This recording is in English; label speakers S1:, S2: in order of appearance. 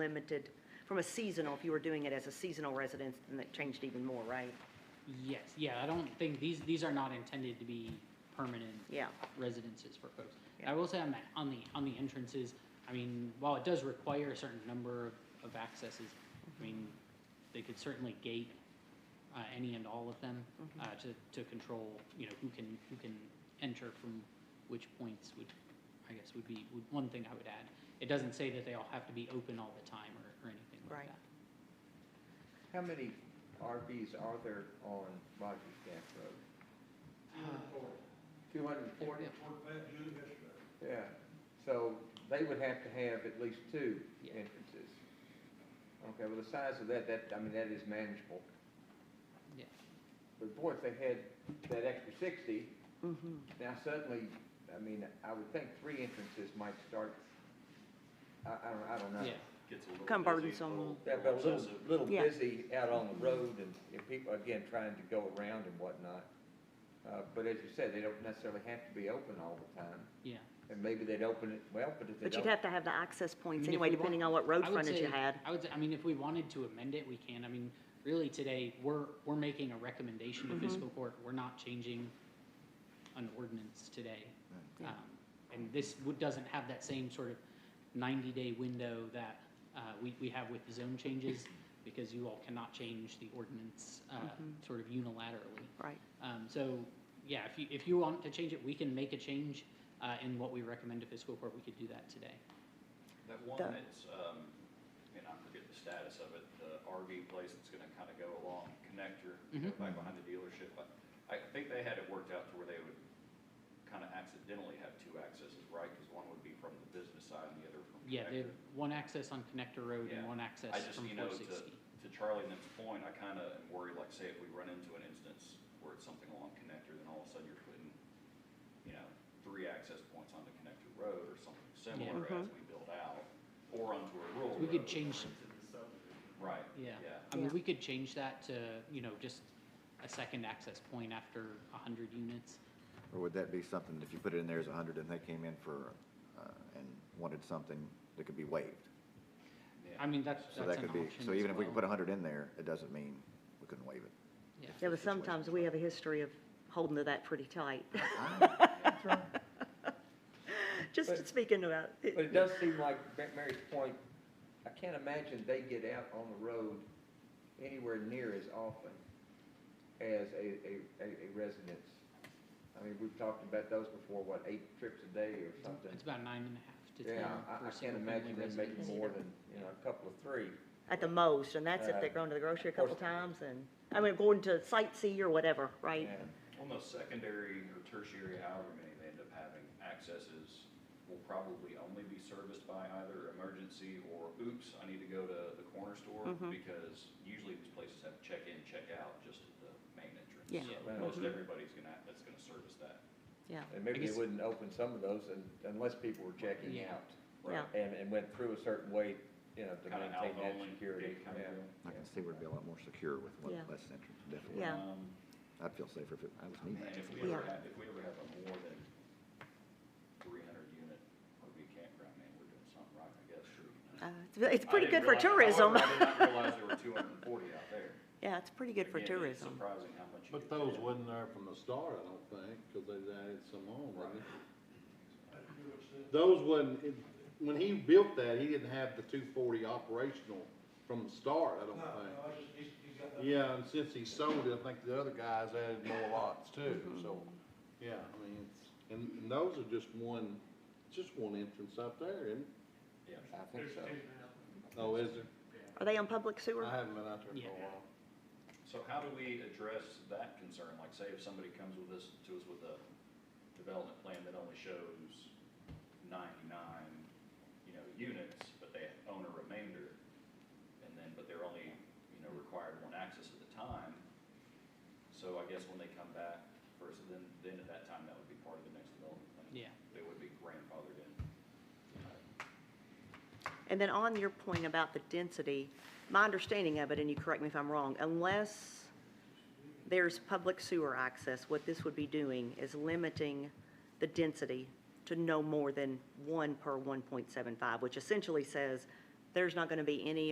S1: limited from a seasonal, if you were doing it as a seasonal residence, then that changed even more, right?
S2: Yes, yeah, I don't think, these, these are not intended to be permanent
S1: Yeah,
S2: residences for folks.
S1: Yeah.
S2: I will say on the, on the, on the entrances, I mean, while it does require a certain number of, of accesses, I mean, they could certainly gate, uh, any and all of them,
S1: Mm-hmm.
S2: uh, to, to control, you know, who can, who can enter from which points would, I guess, would be, would, one thing I would add. It doesn't say that they all have to be open all the time or, or anything like
S1: Right.
S2: that.
S3: How many RVs are there on Rogers Gap Road? Two hundred and forty? Yeah, so they would have to have at least two
S2: Yeah.
S3: entrances. Okay, well, the size of that, that, I mean, that is manageable.
S2: Yeah.
S3: But boy, if they had that extra sixty,
S1: mm-hmm,
S3: now suddenly, I mean, I would think three entrances might start, I, I don't, I don't know.
S2: Yeah,
S4: Gets a little
S1: Come
S4: busy,
S1: burdensome.
S4: little-
S3: That, but a little,
S4: excessive.
S3: little
S1: Yeah.
S3: busy out on the road and, and people, again, trying to go around and whatnot. Uh, but as you said, they don't necessarily have to be open all the time,
S2: yeah.
S3: and maybe they'd open it, well, but if they
S1: but you'd
S3: don't,
S1: have to have the access
S2: I mean,
S1: points
S2: if
S1: anyway,
S2: we want-
S1: depending on what road
S2: I would
S1: frontage you
S2: say-
S1: had.
S2: I would, say- I mean, if we wanted to amend it, we can. I mean, really today, we're, we're making a recommendation to fiscal court. We're not changing an ordinance today.
S1: Yeah.
S2: Um, And this would- doesn't have that same sort of ninety-day window that uh, we, we have with the zone changes because you all cannot change the ordinance uh, sort of unilaterally.
S1: Right,
S2: Um, so, yeah, if you, if you want to change it, we can make a change uh, in what we recommend to fiscal court. We could do that today.
S4: That one
S1: The-
S4: that's, um, and I forget the status of it, the RV place that's gonna kinda go along connector, go
S2: Mhm.
S4: back behind the dealership. but I think they had it worked out to where they would kinda accidentally have two accesses, right? Cause one would be from the business side and the other from
S2: Yeah, they have
S4: connector.
S2: one access on Connector Road and
S4: Yeah.
S2: one
S4: I
S2: access
S4: just,
S2: from
S4: you know,
S2: four
S4: to,
S2: sixty.
S4: to Charlie and them's point, I kinda am worried, like, say if we run into an instance where it's something along connector, then all of a sudden you're putting, you know, three access points onto connector road or something similar as we build out, or onto a rural
S2: We could
S4: road.
S2: change,
S4: Right.
S2: yeah, I
S4: Yeah.
S2: mean,
S1: Yeah.
S2: we could change that to, you know, just a second access point after a hundred units.
S5: Or would that be something, if you put it in there as a hundred and they came in for, uh, and wanted something that could be waived?
S2: I mean, that's,
S5: So
S2: that's
S5: that
S2: an
S5: could be,
S2: option
S5: so
S2: as
S5: even if we could put a
S2: well.
S5: hundred in there, it doesn't mean we couldn't waive it.
S2: Yeah.
S1: yeah, but sometimes we have a history of holding to that pretty tight, just
S3: But-
S1: speaking about. it.
S3: but it does seem like Ma- Mary's point, I can't imagine they get out on the road anywhere near as often as a, a, a a residence. I mean, we've talked about those before, what, eight trips a day or something?
S2: It's about nine and a half to ten
S3: Yeah, I,
S2: per
S3: I can't
S2: single
S3: imagine
S2: family
S3: them making
S2: residence.
S3: more than, you know, a couple of three.
S1: At the most, and that's if
S3: Uh,
S1: they're going to the grocery a
S3: of course.
S1: couple times and, I mean, going to sightsee or whatever, right?
S3: And-
S4: On those secondary or tertiary, however many they end up having, accesses will probably only be serviced by either emergency or oops, I need to go to the corner store,
S1: Mm-hmm.
S4: because usually these places have check-in, check-out just at the main entrance.
S1: Yeah.
S2: Yeah.
S4: So Most everybody's gonna, that's gonna service that.
S1: Yeah,
S3: And maybe
S2: guess-
S3: they wouldn't open some of those un- unless people were checking
S2: Yeah.
S3: out.
S1: yeah,
S3: And, and went through a certain way, you know, to
S4: Kinda
S3: maintain that
S4: out-only
S3: security.
S4: gate kinda
S3: Yeah.
S4: deal.
S5: I can see we'd be a lot more secure with one
S1: Yeah.
S5: less entrance, definitely.
S1: Yeah.
S4: Um,
S5: I'd feel safer if it, I was me.
S4: Man, if we
S1: Yeah.
S4: ever have, if we ever have a more than three hundred unit RV campground, man, we're doing something right, I guess, sure.
S1: Uh, it's, it's
S4: I
S1: pretty good
S4: didn't
S1: for
S4: realize-
S1: tourism.
S4: however, I did not realize there were two hundred and forty out there.
S1: Yeah, it's pretty good for
S4: Again, it's
S1: tourism.
S4: Surprising how much you.
S6: But
S4: could
S6: those
S4: fit.
S6: wasn't there from the start, I don't think, because they added some on,
S4: Right.
S6: right? Those wasn't, it- when he built that, he didn't have the two forty operational from the start, I don't think. Yeah, and since he sold it, I think the other guys added more lots too, so, yeah, I mean, it's, and, and those are just one, just one entrance up there, and,
S4: Yeah.
S3: I think so.
S6: oh, is there?
S1: Are they on public sewer?
S6: I haven't been out there for
S2: Yeah.
S6: a while.
S4: So how do we address that concern? Like, say if somebody comes with us, to us with a development plan that only shows ninety-nine, you know, units, but they own a remainder, and then, but they're only, you know, required one access at a time. So I guess when they come back first, then, then at that time, that would be part of the next development plan.
S2: Yeah.
S4: They would be grandfathered in.
S1: And then on your point about the density, my understanding of it, and you correct me if I'm wrong, unless there's public sewer access, what this would be doing is limiting the density to no more than one per one point seven five, which essentially says there's not going to be any